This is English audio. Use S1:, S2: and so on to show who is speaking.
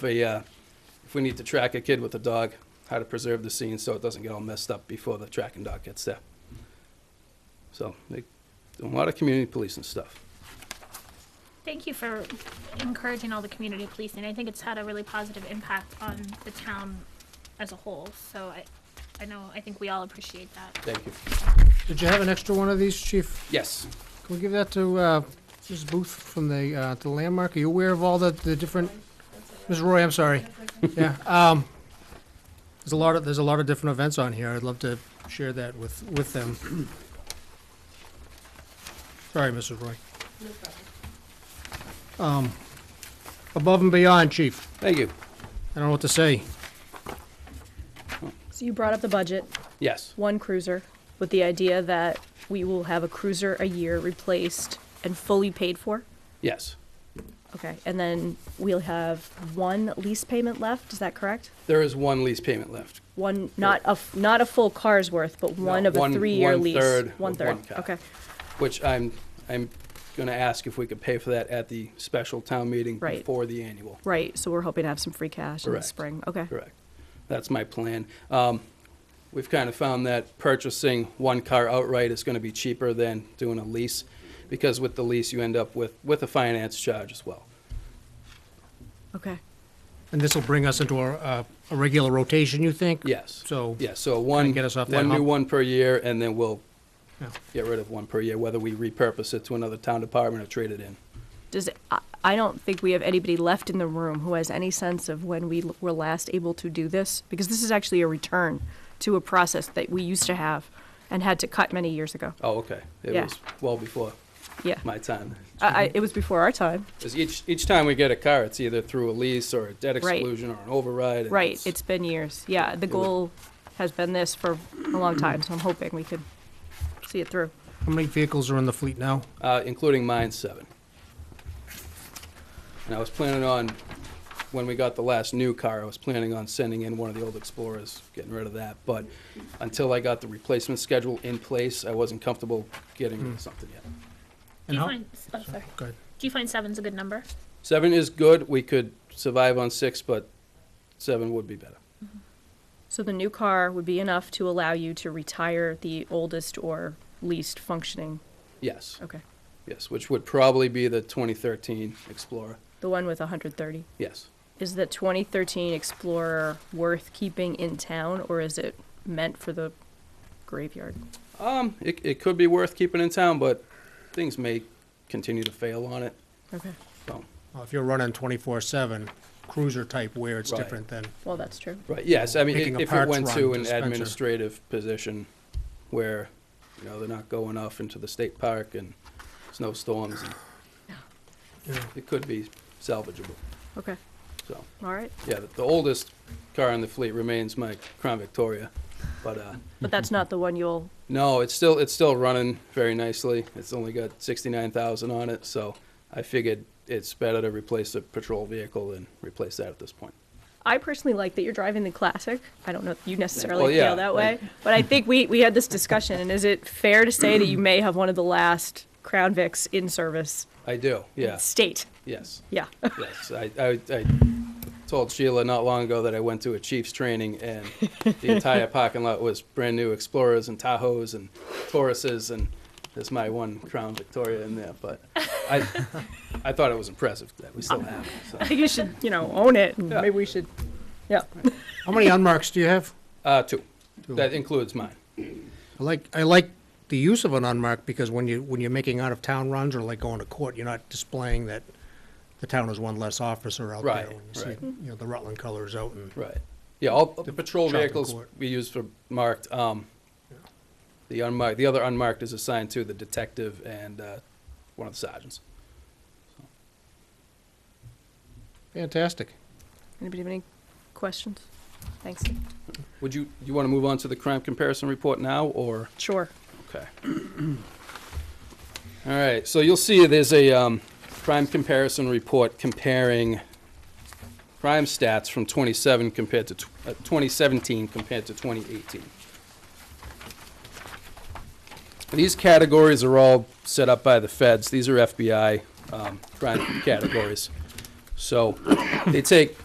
S1: a, uh, if we need to track a kid with a dog, how to preserve the scene so it doesn't get all messed up before the tracking dog gets there. So they do a lot of community policing stuff.
S2: Thank you for encouraging all the community policing. I think it's had a really positive impact on the town as a whole. So I, I know, I think we all appreciate that.
S1: Thank you.
S3: Did you have an extra one of these, Chief?
S1: Yes,
S3: Can we give that to uh, Mrs. Booth from the uh, the landmark? Are you aware of all the, the different? Ms. Roy, I'm sorry. Yeah. Um, there's a lot of there's a lot of different events on here. I'd love to share that with with them. Sorry, Mrs. Roy. Um, above and beyond, Chief.
S1: thank you.
S3: I don't know what to say.
S4: So you brought up the budget,
S1: Yes,
S4: one cruiser, with the idea that we will have a cruiser a year replaced and fully paid for.
S1: yes.
S4: Okay, and then we'll have one lease payment left, is that correct?
S1: There is one lease payment left.
S4: One, not a, f- not a full car's worth, but one of
S1: one-
S4: a three-year
S1: one
S4: lease.
S1: third of one car.
S4: okay,
S1: which I'm, I'm gonna ask if we could pay for that at the special town meeting
S4: Right.
S1: before the annual.
S4: right, so we're hoping to have some free cash in the
S1: Correct.
S4: spring, okay.
S1: Correct. That's my plan. Um, we've kind of found that purchasing one car outright is gonna be cheaper than doing a lease, because with the lease, you end up with, with a finance charge as well.
S4: Okay,
S3: And this will bring us into a, uh, a regular rotation, you think?
S1: Yes.
S3: So-
S1: Yeah, so one,
S3: get us off that
S1: one new
S3: hump.
S1: one per year, and then we'll
S3: Yeah.
S1: get rid of one per year, whether we repurpose it to another town department or trade it in.
S4: does, I, I don't think we have anybody left in the room who has any sense of when we l- were last able to do this, because this is actually a return to a process that we used to have and had to cut many years ago.
S1: Oh, okay. It
S4: Yeah.
S1: was well before
S4: Yeah,
S1: my time.
S4: I, I, it was before our time,
S1: 'Cause each, each time we get a car, it's either through a lease or a debt
S4: Right.
S1: exclusion or an override. and
S4: right? It's been years. Yeah, the
S1: It was-
S4: goal has been this for a long time, so I'm hoping we could see it through.
S3: How many vehicles are in the fleet now?
S1: uh, including mine seven. And I was planning on, when we got the last new car, I was planning on sending in one of the old Explorers, getting rid of that. But until I got the replacement schedule in place, I wasn't comfortable getting rid of something yet.
S2: Do
S3: And
S2: you
S3: how-
S2: find, oh, sorry.
S3: Go ahead.
S2: Do you find seven's a good number?
S1: Seven is good. We could survive on six, but seven would be better.
S4: So the new car would be enough to allow you to retire the oldest or least functioning.
S1: Yes,
S4: Okay,
S1: yes, which would probably be the 2013 Explorer.
S4: the one with 130.
S1: Yes.
S4: Is the 2013 Explorer worth keeping in town, or is it meant for the graveyard?
S1: Um, it, it could be worth keeping in town, but things may continue to fail on it.
S4: Okay,
S1: So,
S3: Well, If you're running twenty-four seven, cruiser type where it's
S1: Right.
S3: different than,
S4: well that's true.
S1: Right, yes, I mean,
S3: Picking
S1: i-
S3: a
S1: if it
S3: parts
S1: went
S3: run
S1: to an
S3: dispenser.
S1: administrative position where, you know, they're not going off into the state park and snowstorms, and it could be salvageable,
S4: Okay,
S1: so.
S4: all right,
S1: Yeah, the- the oldest car in the fleet remains my Crown Victoria, but, uh,
S4: but that's not the one you'll.
S1: no, it's still, it's still running very nicely. It's only got sixty-nine thousand on it, so I figured it's better to replace a patrol vehicle than replace that at this point.
S4: I personally like that you're driving the classic. I don't know if you necessarily
S1: Well, yeah,
S4: feel that way,
S1: like-
S4: but I think we, we had this discussion. And is it fair to say that you may have one of the last Crown Vics in service?
S1: I do, yeah,
S4: State.
S1: yes.
S4: Yeah.
S1: Yes, I, I, I told Sheila not long ago that I went to a Chiefs training and the entire parking lot was brand new Explorers and Tahoes and Tauruses and there's my one Crown Victoria in there, but I, I thought it was impressive that we still have it.
S4: I
S1: So.
S4: think you should, you know, own it. And
S1: Yeah.
S4: Maybe we should. Yeah.
S3: how many unmarks do you have?
S1: Uh, two.
S3: Two.
S1: That includes mine.
S3: I like, I like the use of an unmarked because when you, when you're making out of town runs or like going to court, you're not displaying that the town has one less officer out there.
S1: Right,
S3: when you see,
S1: right.
S3: You know, the Rutland colors out and,
S1: Right. Yeah, all the patrol
S3: shopping
S1: vehicles
S3: court.
S1: we use for marked. Um, the unmarked, the other unmarked is assigned to the detective and uh, one of the sergeants.
S3: fantastic.
S4: Anybody have any questions? Thanks.
S1: Would you, you want to move on to the crime comparison report now, or?
S4: Sure.
S1: Okay. All right, so you'll see there's a um, crime comparison report comparing crime stats from 27 compared to, tw- uh, 2017 compared to 2018. These categories are all set up by the feds. These are FBI um, crime categories. So they take